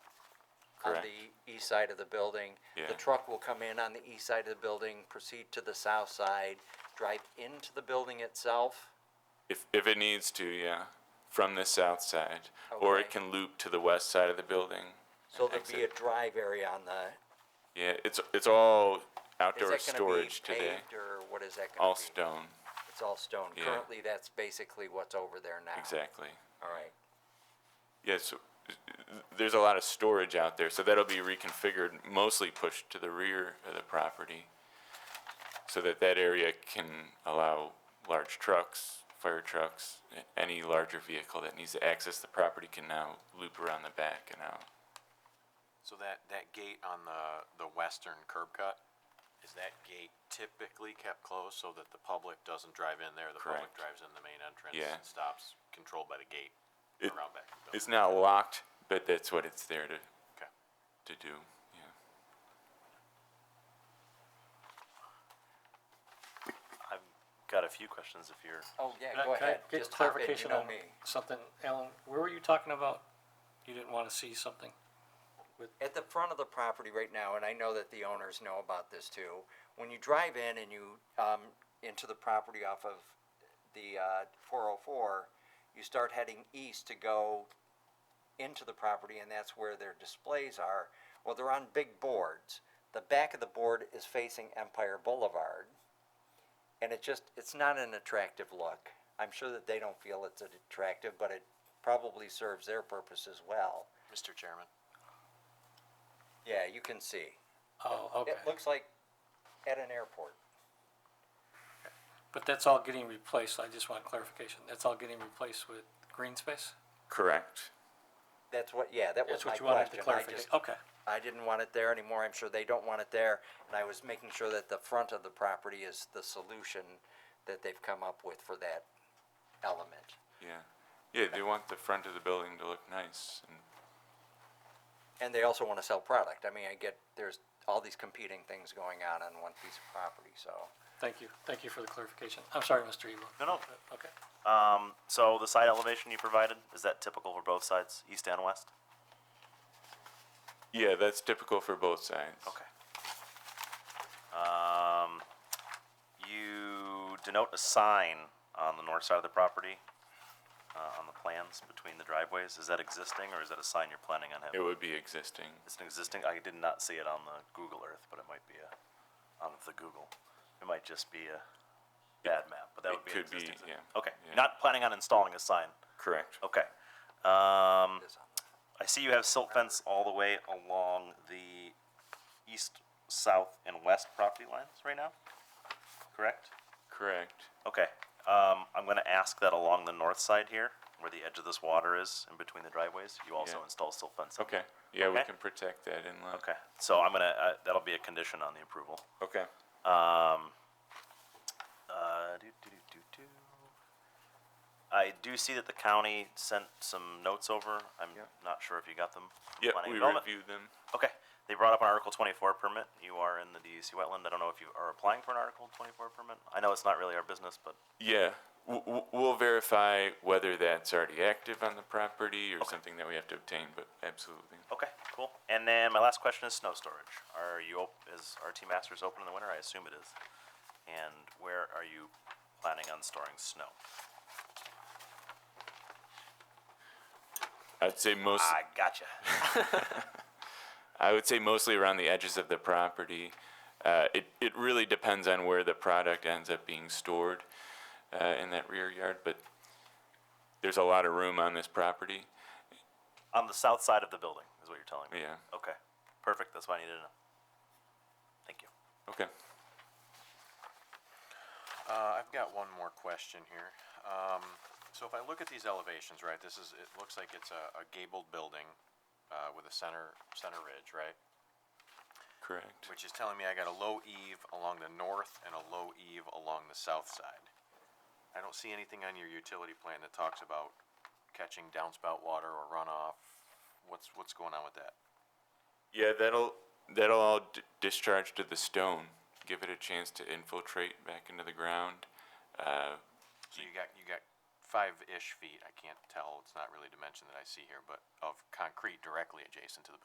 on Correct. the east side of the building. Yeah. The truck will come in on the east side of the building, proceed to the south side, drive into the building itself. If, if it needs to, yeah, from the south side, or it Okay. can loop to the west side of the building. So and there'll be a exit. drive area on the, Yeah, it's, it's all is outdoor that gonna be storage today, paved or what is that gonna be? all stone, It's all stone. Yeah. Currently, that's basically what's over there now. exactly. All right. Yeah, so uh, there's a lot of storage out there, so that'll be reconfigured, mostly pushed to the rear of the property, so that that area can allow large trucks, fire trucks, a- any larger vehicle that needs to access the property can now loop around the back and out. So that, that gate on the, the western curb cut, is that gate typically kept closed so that the public doesn't drive in there? The public Correct. drives in the main entrance Yeah. and stops, controlled by the gate It- around back. to the It's building. not locked, but that's what it's there to, Okay. to do, yeah. I've got a few questions if you're. Oh, yeah, Can I- go can I ahead. get Just hop in, you clarification know on me. Something, Alan, where were you talking about? You didn't want to see something? At the front of the property right now, and I know that the owners know about this too, when you drive in and you, um, into the property off of the, uh, four oh four, you start heading east to go into the property, and that's where their displays are. Well, they're on big boards. The back of the board is facing Empire Boulevard. And it just, it's not an attractive look. I'm sure that they don't feel it's attractive, but it probably serves their purpose as well. Mr. Chairman, Yeah, you can see. Oh, okay. It looks like at an airport. But that's all getting replaced, I just want clarification. That's all getting replaced with green space? Correct. That's what, yeah, that was That's my what you wanted Oh. question. to I clarify? just, Okay, I didn't want it there anymore. I'm sure they don't want it there. And I was making sure that the front of the property is the solution that they've come up with for that element. Yeah, yeah, they want the front of the building to look nice, and, And they also want to sell product. I mean, I get, there's all these competing things going on on one piece of property, so. thank you. Thank you for the clarification. I'm sorry, Mr. Eagle. No, no. Okay. Um, so the side elevation you provided, is that typical for both sides, east and west? yeah, that's typical for both sides. Okay. Um, you denote a sign on the north side of the property, uh, on the plans between the driveways. Is that existing or is that a sign you're planning on It having? would be existing, It's an existing, I did not see it on the Google Earth, but it might be a, on the Google. It might just be a bad map, but that it would be an could be, existing. sign. yeah, Okay, yeah. not planning on installing a sign. correct. Okay. Um, this on the- I see you have silt fence all the way along the east, south, and west property lines right now, correct? Correct. Okay, um, I'm gonna ask that along the north side here, where the edge of this water is, in between the driveways, you also Yeah. install silt fence. Okay. Yeah, we Okay. can protect that inlet. Okay, so I'm gonna, uh, that'll be a condition on the approval. Okay. Um, uh, do, do, do, do, do. I do see that the county sent some notes over, I'm Yep. not sure if you got them. from Yeah, planning we development. reviewed them. Okay, they brought up an Article twenty-four permit, you are in the DEC wetland, I don't know if you are applying for an Article twenty-four permit, I know it's not really our business, but, Yeah, w- w- we'll verify whether that's already active on the property or Okay. something that we have to obtain, but absolutely. okay, cool. And then my last question is snow storage, are you, op- is RT Masters open in the winter, I assume it is? And where are you planning on storing snow? I'd say most, I gotcha. I would say mostly around the edges of the property. Uh, it, it really depends on where the product ends up being stored, uh, in that rear yard, but there's a lot of room on this property. On the south side of the building, is what you're telling me? Yeah, Okay, perfect, that's what I needed to know. Thank you. okay. uh, I've got one more question here. Um, so if I look at these elevations, right, this is, it looks like it's a, a gabled building, uh, with a center, center ridge, right? Correct. Which is telling me I got a low eave along the north and a low eave along the south side. I don't see anything on your utility plan that talks about catching downspout water or runoff. What's, what's going on with that? Yeah, that'll that'll all d- discharge to the stone. Give it a chance to infiltrate back into the ground. Uh, So you got, you got five-ish feet, I can't tell, it's not really dimension that I see here, but of concrete directly adjacent to the